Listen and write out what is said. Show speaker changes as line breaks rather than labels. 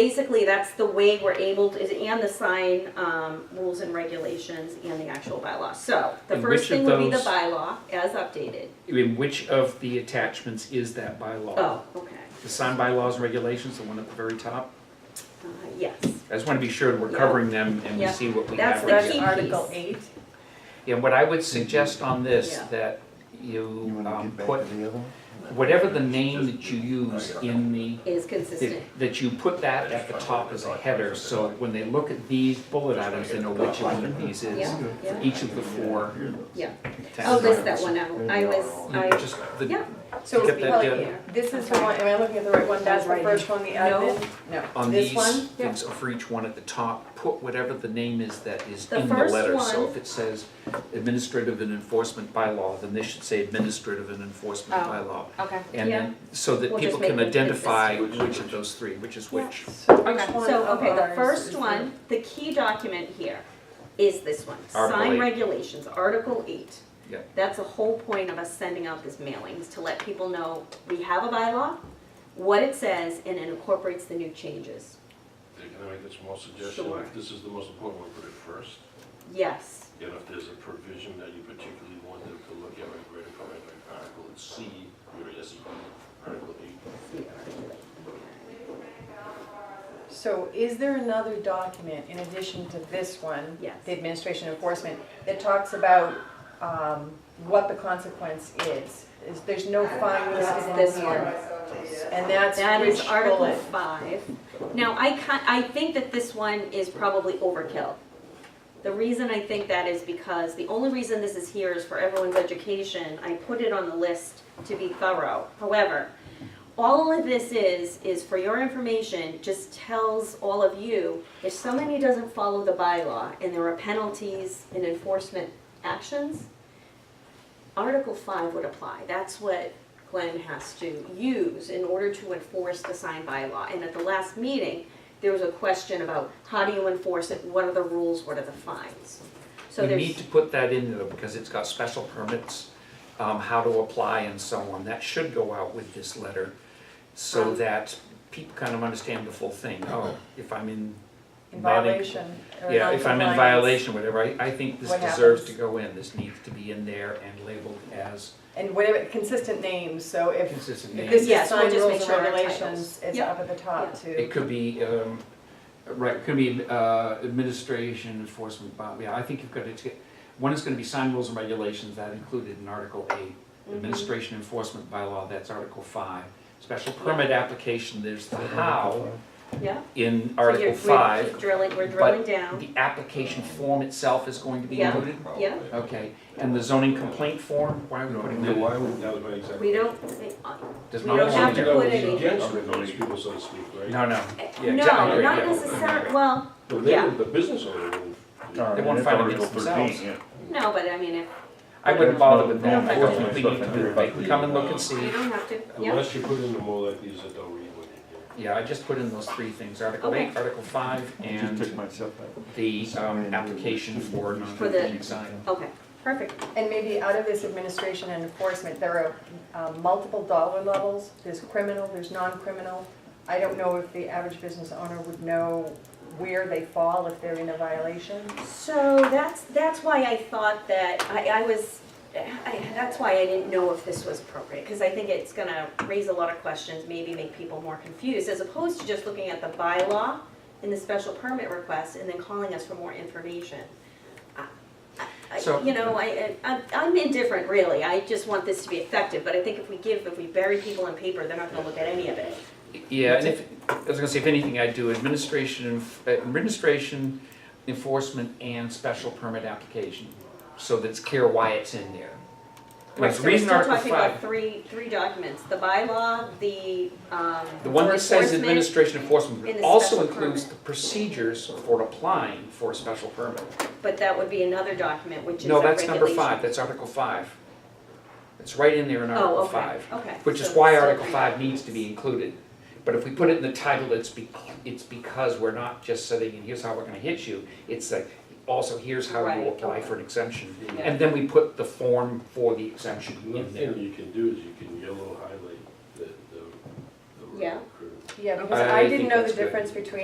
basically, that's the way we're able to, and the sign um, rules and regulations and the actual bylaw. So the
And
first
which
thing
of
would be the
those-
bylaw as updated.
I mean, which of the attachments is that bylaw?
Oh, okay.
The sign bylaws and regulations, the one at the very top?
Uh, Yes.
I just want to be sure we're
Yeah.
covering them and we
Yeah.
see what we
That's
have.
the
right
key
here.
Article
eight.
And what I would suggest on this,
Yeah.
that
You
you
want to
um,
get back
put,
to the other one?
whatever the name that you use in the
Is consistent.
that- That you put that at the top as a header, so when they look at these bullet items, they know which one of these is,
Yeah,
for
yeah,
each of the four.
yeah.
tax
I'll list that
items.
one out. I was,
You
I,
Just the,
yeah.
So
Get that
well,
done.
this is the one, am I looking at the right one? That's the first one, the admin?
on
This
these
one?
things, for each one at the top, put whatever the name is that is
The
in the
first
letter. So
one-
if it says administrative and enforcement bylaw, then they should say administrative and enforcement
Oh.
bylaw.
Okay.
And then, so that
We'll just
people can
make it
identify which of those three, which is which.
So
Okay,
which one
so,
of
okay, the
ours is
first
the-
one, the key document here is this one.
Article
Sign
eight.
regulations, Article eight.
Yeah.
That's the whole point of us sending out this mailings, to let people know we have a bylaw, what it says, and it incorporates the new changes.
Can I make this small suggestion?
Sure.
If This is the most important one, put it first.
Yes,
And if there's a provision that you particularly want them to look at, like right from like Article C, or S E, Article eight.
see article eight.
So is there another document in addition to this one?
Yes.
The administration enforcement, that talks about um, what the consequence is? Is, there's no fine listed in
This
here.
one.
And that's
That is
which
Article
bullet?
five. Now, I can I think that this one is probably overkill. The reason I think that is because, the only reason this is here is for everyone's education. I put it on the list to be thorough. However, all of this is, is for your information, just tells all of you, if somebody doesn't follow the bylaw and there are penalties and enforcement actions, Article five would apply. That's what Glenn has to use in order to enforce the signed bylaw. And at the last meeting, there was a question about how do you enforce it, what are the rules, what are the fines? So
You
there's.
need to put that in though, because it's got special permits, um, how to apply and so on. That should go out with this letter, so
Um.
that people kind of understand the full thing. Oh, if I'm in.
In
not in-
violation or
Yeah, if I'm in
non-compliance.
violation, whatever, I, I think this
What
deserves to
happens?
go in. This needs to be in there and labeled as
And whatever, consistent names, so if
consistent
If this
names.
is
Yes, we'll
sign
just
rules
make
and
sure our
regulations,
titles.
it's
Yeah.
up at the top
It
too.
could be, um, right, it could be, uh, administration enforcement, by- yeah, I think you've got to, one is gonna be sign rules and regulations, that included in Article eight. Administration enforcement bylaw, that's Article five. Special permit application, there's the how
Yeah.
in
So you're-
Article
we keep
five.
Drilling, we're
but
drilling down,
The application form itself is going to be
Yeah.
included?
yeah,
Okay, and the zoning complaint form, why are we
No,
putting
no,
that?
why would, that was my exact.
we don't,
Does
we
not
don't
belong
have to
there.
put
It's
anything.
Against those people, so to speak, right?
No, no,
no,
Yeah, exactly,
not
yeah.
necessarily, well,
No, they-
yeah.
The business owner will.
they won't fight against themselves.
no, but I mean, if,
I wouldn't bother with that, I
Yeah.
don't think we need to do it, Like, we come and look and see.
you don't have to, yeah,
Unless you put in the more like these that don't read what you do.
Yeah, I just put in those three things, Article eight,
Okay.
Article five,
Just took
and
myself out.
the, um, application
For
for
the-
non-conforming sign.
okay, perfect.
And maybe out of this administration and enforcement, there are um, multiple dollar levels. There's criminal, there's non-criminal. I don't know if the average business owner would know where they fall if they're in a violation.
So that's, that's why I thought that, I, I was, I, that's why I didn't know if this was appropriate, because I think it's gonna raise a lot of questions, maybe make people more confused, as opposed to just looking at the bylaw and the special permit request, and then calling us for more information. I- I-
So-
You know, I, I- I'm- I'm indifferent, really, I just want this to be effective, but I think if we give, if we bury people in paper, they're not gonna look at any of it.
Yeah, and if, I was gonna say, if anything, I'd do administration, enf- administration, enforcement, and special permit application, so that's clear why it's in there. Like,
So
the reason Article
We're still talking about
five,
three, three documents, the bylaw, the, um.
the one that says
enforcement,
administration enforcement,
and
but
the
also
special
includes
permit.
the procedures for applying for a special permit.
But that would be another document, which is
No,
a
that's number
regulation.
five, that's Article five. It's right in there in
Oh,
Article
okay,
five.
okay.
Which is
So
why
it's
Article
okay.
five needs to be included. But if we put it in the title, it's be, it's because we're not just saying, and here's how we're gonna hit you. It's like, also, here's how
Right,
you apply
okay.
for an exemption.
Yeah.
And then we put the form for the exemption
Another
in there.
thing you can do is you can yellow highlight the, the. the
Yeah.
road crew.
Yeah, because
I
I didn't
think
know
that's
the
good.
difference between